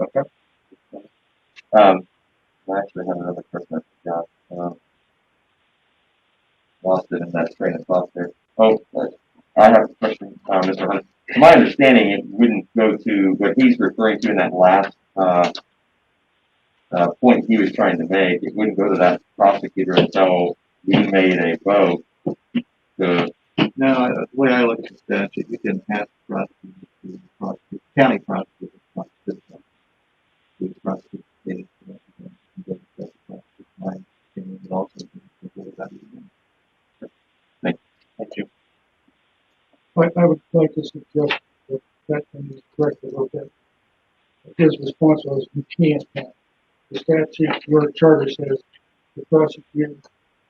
Okay. Um, I actually have another question I forgot. Um, lost it in that train of thought there. Oh, uh, I have a question, uh, Mr. Hunt. From my understanding, it wouldn't go to what he's referring to in that last, uh, uh, point he was trying to make. It wouldn't go to that prosecutor until we made a vote to No, I- the way I look at the statute, you can ask the prosecutor, to prosecute- county prosecutor, to prosecute them. To prosecute the case, and then- and then that's the prosecutor's mind, and it also can consider that even. Thank you. I, I would like to suggest that that can be corrected a little bit. His response was, you can't have. The statute, your charter says, the prosecuting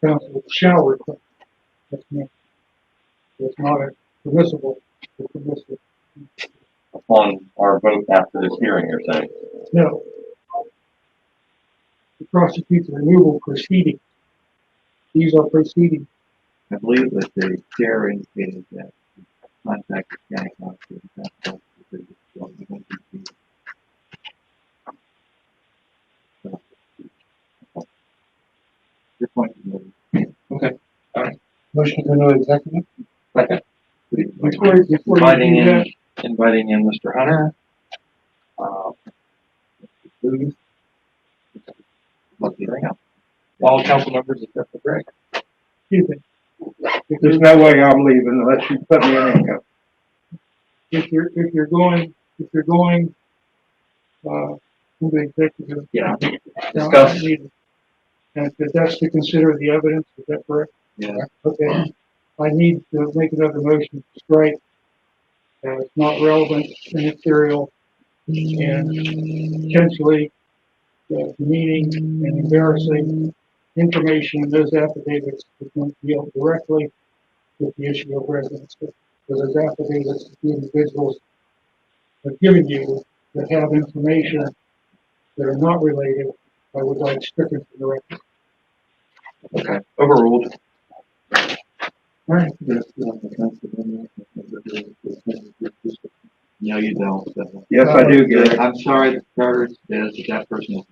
counsel shall request. That's not, it's not a permissible, a permissible, upon our vote after this hearing, you're saying? no. To prosecute the removal proceedings. These are proceedings, I believe that the chair indicated that the contact the county prosecutor, that prosecutor is going to be the Your point is noted. Motion to no executive? Please, Mike. before, before Inviting you do that, in, inviting in Mr. Hunter. Uh, Please. Lucky ring up. all council members except for Greg. excuse me. There's no way I'm leaving unless you put me in handcuffs. if you're, if you're going, if you're going, uh, to the executive. Yeah. now, Discuss. And if that's to consider the evidence, is that correct? Yeah. Okay, I need to make another motion to strike, uh, it's not relevant, immaterial, and potentially, uh, demeaning and embarrassing information in those affidavits that don't deal directly with the issue of residency because it's affidavits that the individuals have given you that have information that are not related, I would like stricken from the record. Okay, overruled. No, you don't. so- Yes, I do, Gary. I'm sorry, the charter says that that person,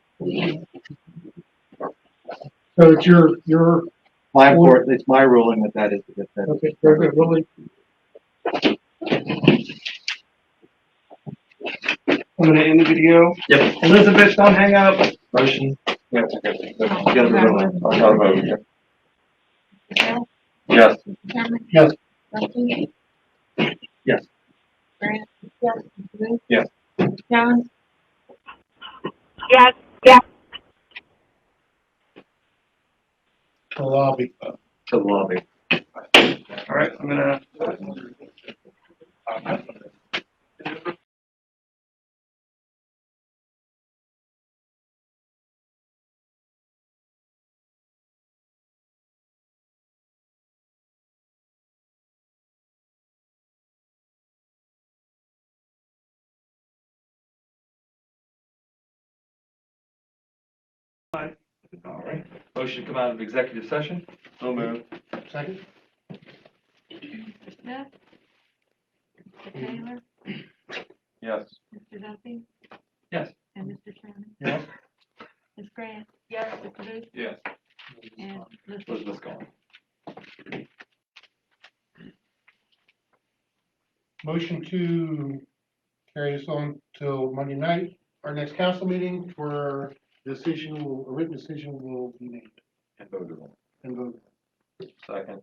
So it's your, your, my court, it's my ruling that that is the defense. okay, very good, Willie. I'm gonna end the video. Yep. Elizabeth, don't hang up. Motion, Yeah, okay. You gotta be ruling. I'll have a vote here. Yes, Cameron? Yes. Duffy? Yes. Grant? Yes. Booth? Yes. Jones? Yes. to lobby. To lobby. All right, I'm gonna All right, motion to come out of executive session. So move. Second. Smith? Mr. Taylor? yes. Mr. Duffy? Yes. And Mr. Sherman? Yes. Ms. Grant? Yes. Mr. Booth? Yes. And Ms. Elizabeth's gone. Motion to carry this on till Monday night, our next council meeting for decision, will- a written decision will be made And voted on. and voted. Second,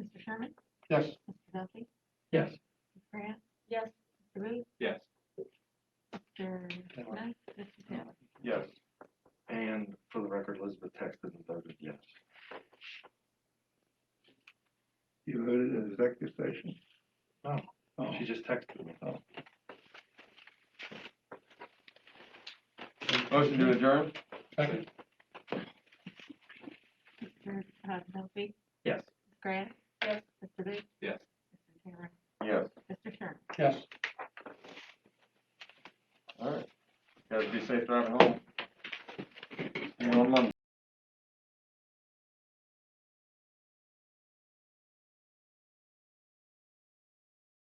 Mr. Sherman? Yes. Mr. Duffy? Yes. Ms. Grant? Yes. Mr. Booth? Yes. Mr. Smith? Mr. Taylor? Yes. And for the record, Elizabeth texted and voted yes. You voted in executive session? Oh. She just texted me. motion to adjourn? Second. Mr. uh, Duffy? Yes. Ms. Grant? Yes. Mr. Booth? Yes. Mr. Taylor? Yes, Mr. Sherman? Yes. all right. Guys, be safe driving home. See you on Monday.